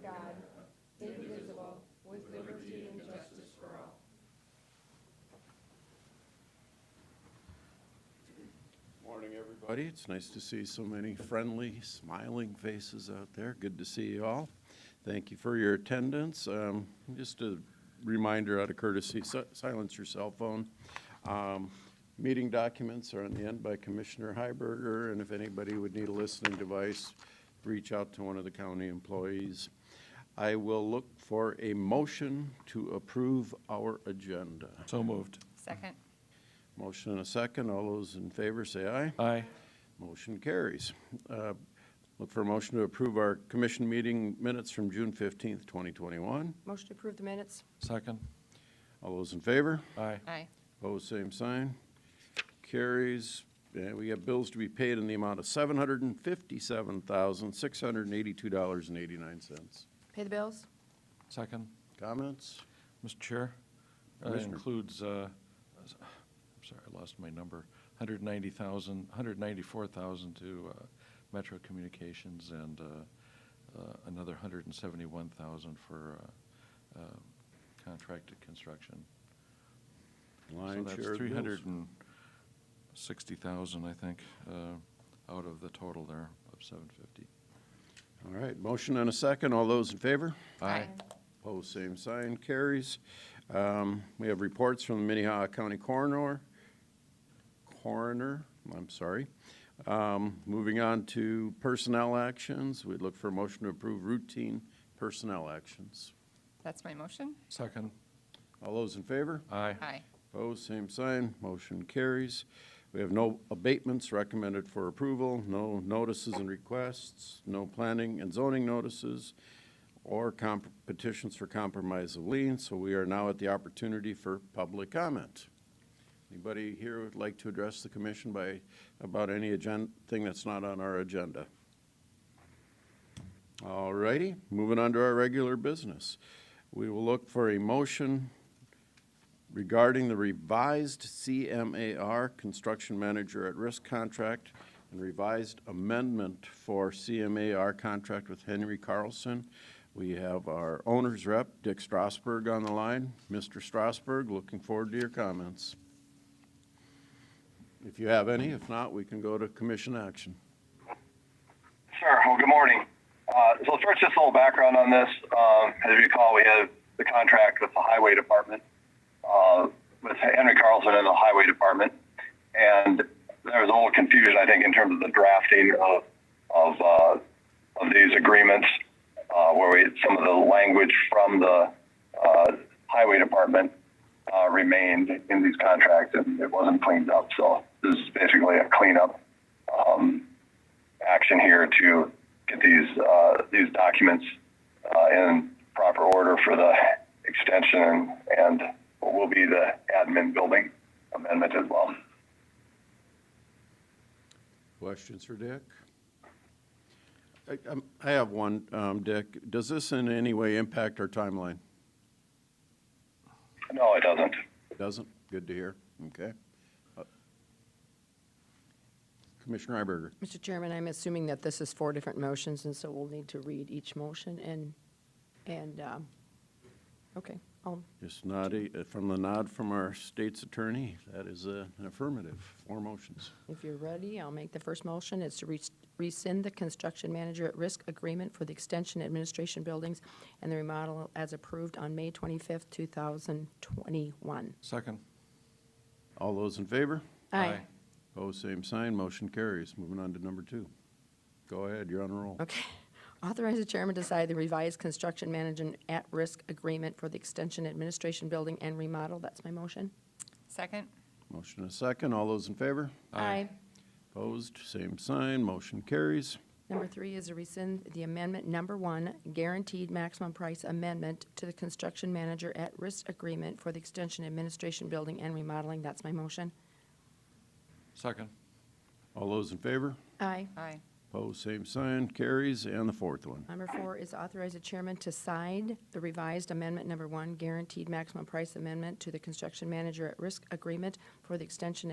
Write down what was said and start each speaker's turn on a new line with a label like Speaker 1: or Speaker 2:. Speaker 1: God, indivisible, with liberty and justice for all.
Speaker 2: Morning, everybody. It's nice to see so many friendly, smiling faces out there. Good to see you all. Thank you for your attendance. Um, Just a reminder out of courtesy, si- silence your cell phone. Um, Meeting documents are on the end by Commissioner Heiberger, and if anybody would need a listening device, reach out to one of the county employees. I will look for a motion to approve our agenda.
Speaker 3: So moved.
Speaker 4: Second.
Speaker 2: Motion and a second. All those in favor say aye.
Speaker 3: Aye.
Speaker 2: Motion carries. Uh, Look for a motion to approve our commission meeting minutes from June 15th, 2021.
Speaker 1: Motion to approve the minutes?
Speaker 3: Second.
Speaker 2: All those in favor?
Speaker 3: Aye.
Speaker 4: Aye.
Speaker 2: Opposed, same sign. Carries. And we have bills to be paid in the amount of $757,682.89.
Speaker 1: Pay the bills?
Speaker 3: Second.
Speaker 2: Comments?
Speaker 3: Mr. Chair, that
Speaker 2: Commissioner.
Speaker 3: includes, uh, s- I'm sorry, I lost my number, 190,000, 194,000 to uh, Metro Communications and uh, uh, another 171,000 for uh, uh, contracted construction.
Speaker 2: Lion
Speaker 3: So
Speaker 2: share
Speaker 3: that's
Speaker 2: of bills.
Speaker 3: 360,000, I think, uh, out of the total there of 750.
Speaker 2: All right, motion and a second. All those in favor?
Speaker 4: Aye.
Speaker 2: Opposed, same sign, carries. Um, We have reports from the Minnehaha County Coroner, coroner, I'm sorry. Um, Moving on to personnel actions, we'd look for a motion to approve routine personnel actions.
Speaker 4: That's my motion.
Speaker 3: Second.
Speaker 2: All those in favor?
Speaker 3: Aye.
Speaker 4: Aye.
Speaker 2: Opposed, same sign, motion carries. We have no abatements recommended for approval, no notices and requests, no planning and zoning notices, or comp- petitions for compromise of lien, so we are now at the opportunity for public comment. Anybody here would like to address the commission by, about any agenda, thing that's not on our agenda? All righty, moving on to our regular business. We will look for a motion regarding the revised CMAR Construction Manager at Risk contract and revised amendment for CMAR contract with Henry Carlson. We have our owner's rep, Dick Strasberg, on the line. Mr. Strasberg, looking forward to your comments. If you have any, if not, we can go to commission action.
Speaker 5: Sure. Well, good morning. Uh, so first, just a little background on this. Um, as you recall, we had the contract with the highway department, uh, with Henry Carlson and the highway department, and there was a little confusion, I think, in terms of the drafting of of, uh, of these agreements, uh, where we some of the language from the uh, highway department uh, remained in these contracts, and it wasn't cleaned up. So this is basically a cleanup. Um, action here to get these uh, these documents uh, in proper order for the extension and what will be the admin building amendment as well.
Speaker 2: Questions for Dick? I, um, I have one, um, Dick. Does this in any way impact our timeline?
Speaker 5: No, it doesn't.
Speaker 2: Doesn't? Good to hear. Okay. Uh, Commissioner Iberger,
Speaker 6: Mr. Chairman, I'm assuming that this is four different motions, and so we'll need to read each motion and, and, um, okay, I'll,
Speaker 2: just nodding, uh, from the nod from our state's attorney, that is uh, an affirmative. Four motions.
Speaker 6: if you're ready, I'll make the first motion. It's to res- rescind the construction manager at risk agreement for the extension administration buildings and the remodel as approved on May 25th, 2021.
Speaker 3: Second.
Speaker 2: All those in favor? Opposed, same sign. Motion carries. Moving on to number two. Go ahead, you're on a roll.
Speaker 6: Okay. Authorize the chairman to sign the revised construction management at-risk agreement for the extension administration building and remodel. That's my motion.
Speaker 4: Second.
Speaker 2: Motion and a second. All those in favor?
Speaker 3: Aye.
Speaker 2: Opposed, same sign. Motion carries.
Speaker 6: Number three is to rescind the amendment number one, guaranteed maximum price amendment to the construction manager at risk agreement for the extension administration building and remodeling. That's my motion.
Speaker 3: Second.
Speaker 2: All those in favor?
Speaker 6: Aye.
Speaker 4: Aye.
Speaker 2: Opposed, same sign. Carries. And the fourth one.
Speaker 6: Number four is authorize the chairman to sign the revised amendment number one, guaranteed maximum price amendment to the construction manager at risk agreement for the extension